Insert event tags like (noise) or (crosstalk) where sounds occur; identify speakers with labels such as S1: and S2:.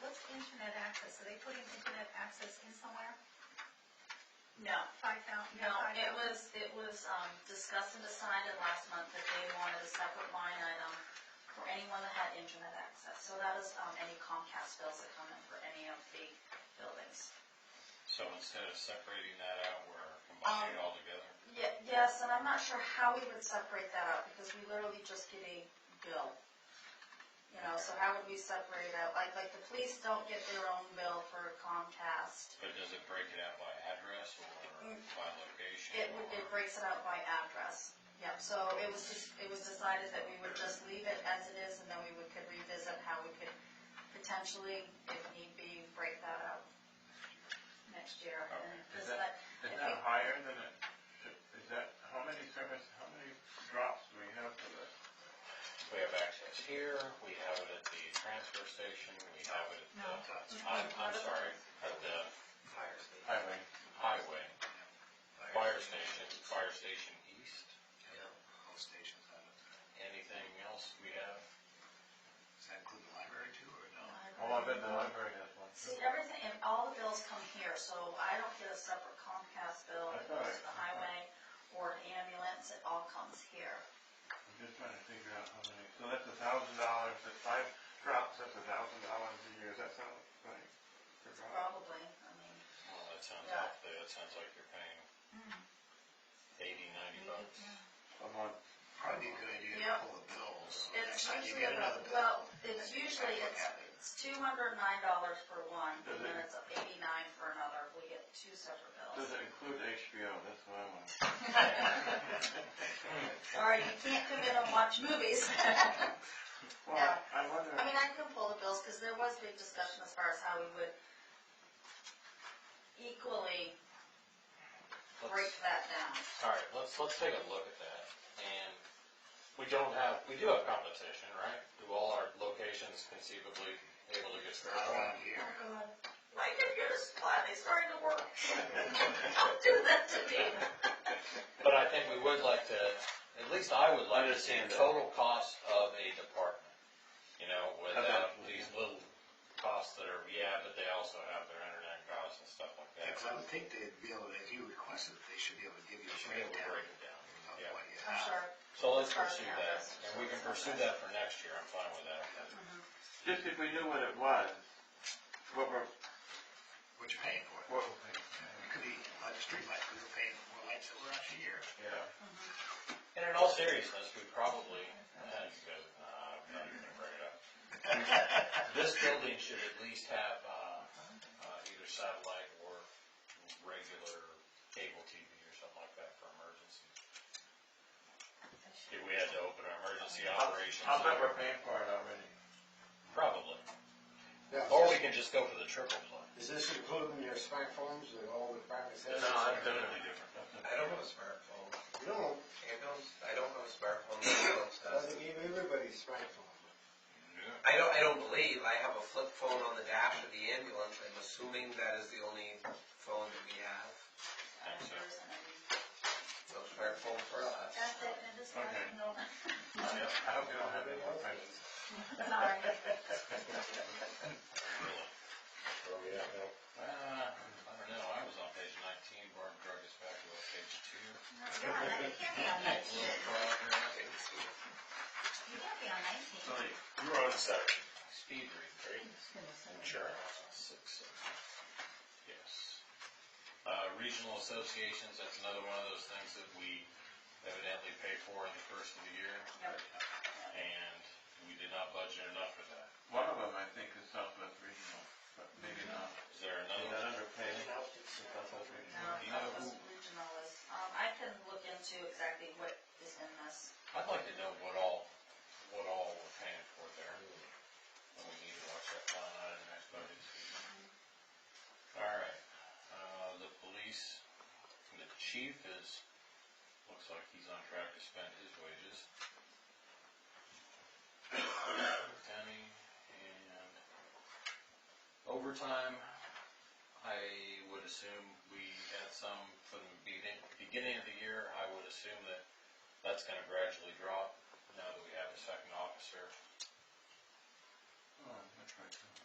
S1: internet access, so they put in internet access in somewhere,
S2: No,
S1: five thousand?
S2: no, it was, it was um, discussed and decided last month that they wanted a separate line item for anyone that had internet access. So that is um, any Comcast bills that come in for any of the buildings.
S3: So instead of separating that out, we're combining it all together?
S2: Ye- Yes, and I'm not sure how we would separate that out, because we literally just get a bill. You know, so how would we separate out, like, like the police don't get their own bill for Comcast.
S3: But does it break it out by address or by location?
S2: It, would- it
S3: or-
S2: breaks it out by address, yep, so it was just, it was decided that we would just leave it as it is, and then we would could revisit how we could potentially, if need be, break that out next year. and
S4: Okay. Is
S2: just let-
S4: Is that higher than it, is that, how many service, how many drops do we have for this?
S3: We have access here, we have it at the transfer station, we have it at the, I'm, I'm sorry, at the
S4: Highway,
S3: highway, fire station, fire station east. Anything else we have?
S5: Does that include the library too, or no?
S4: well, I bet the library has one.
S2: See, everything, and all the bills come here, so I don't get a separate Comcast bill, it goes to the highway or an ambulance, it all comes here.
S4: I'm just trying to figure out how many, so that's a thousand dollars, that's five drops, that's a thousand dollars a year, that sounds right? Per drop?
S2: Probably, I mean,
S3: Well, that sounds
S2: Yeah.
S3: roughly, that sounds like you're paying eighty, ninety bucks.
S4: A month.
S5: Probably a good idea to
S2: Yep.
S5: pull the bills.
S2: it's
S5: Next time you
S2: usually
S5: get
S2: about,
S5: another bill.
S2: well, it's
S5: next
S2: usually,
S5: time look
S2: it's,
S5: at it.
S2: it's two hundred and nine dollars for one, and then
S4: Mhm.
S2: it's eighty-nine for another, we get two separate
S4: Does
S2: bills.
S4: it include HBO, that's what I want.
S2: (laughs) Alright, you can't come in and watch movies. (laughs)
S4: Well, I- I wonder,
S2: I mean, I can pull the bills, because there was big discussion as far as how we would equally break
S3: Let's-
S2: that down.
S3: All right, let's, let's take a look at that. And we don't have, we do have competition, right? Do all our locations conceivably able to get
S5: (laughs) They're
S3: started?
S5: around here.
S2: My computer's flat, it's starting to work. (laughs) Don't do that to me.
S3: But I think we would like to, at least I would like to see
S4: Understand
S3: the
S4: that.
S3: total cost of a department. You know, without
S4: Absolutely.
S3: these little costs that are, yeah, but they also have their internet costs and stuff like that.
S5: Because I would think they'd be able, to if you requested, it, they should be able to give you
S3: We
S5: a
S3: should be able to break it
S5: breakdown
S3: down.
S5: of
S3: Yeah.
S5: what you
S2: I'm
S5: have.
S2: sure.
S3: So let's pursue that, and we can pursue that for next year, I'm fine with that.
S4: just if we knew what it was, what we're,
S5: What you're paying for.
S4: what we're paying.
S5: It could be like the streetlights, we were paying for more lights that were out here.
S4: Yeah.
S3: And in all seriousness, we probably, uh, you guys, uh, I'm not even gonna bring it up. This building should at least have, uh, uh, either satellite or regular cable TV or something like that for emergencies. If we had to open our emergency operations.
S4: I'll bet we're paying for it already.
S3: Probably.
S6: Now,
S3: Or we can just go for the triple play.
S6: Oh, Is this including your smartphones that all the departments have?
S3: Totally different.
S7: I don't know a smartphone.
S6: You don't,
S7: Ambulance, I don't know a smartphone. Ambulance
S6: I
S7: does.
S6: gave everybody smartphones.
S7: I don't, I don't believe. I have a flip phone on the dash of the ambulance. I'm assuming that is the only phone that we have. No smartphone for us.
S2: That's it, I just wanted (laughs) to know.
S4: I hope you don't have any more questions.
S2: Sorry.
S6: Oh, yeah, no.
S3: Uh, I don't know, I was on page nineteen, Barb drug us back to like page two.
S1: No, you're on that, you can't be on nineteen,
S3: Little progress.
S1: you can't be on nineteen.
S4: So, like,
S3: You were on seven. Speed read, right? Insurance, six, seven. Yes. Uh, regional associations, that's another one of those things that we evidently pay for in the first of the year.
S2: Yep.
S3: And we did not budget enough for that.
S4: One of them, I think, is Southwest Regional, but maybe not.
S3: Is there
S4: Is that
S3: another?
S4: underpaid? Southwest
S2: No,
S4: Regional?
S2: that was regional is, um, I can look into exactly what is in this.
S3: I'd like to know what all, what all we're paying for there. And we need to watch that line out in the next budget season. All right, uh, the police, the chief is, looks like he's on track to spend his wages. Tammy and overtime, I would assume we had some from the beginning, beginning of the year, I would assume that that's gonna gradually drop now that we have a second officer.
S4: Oh, that's right.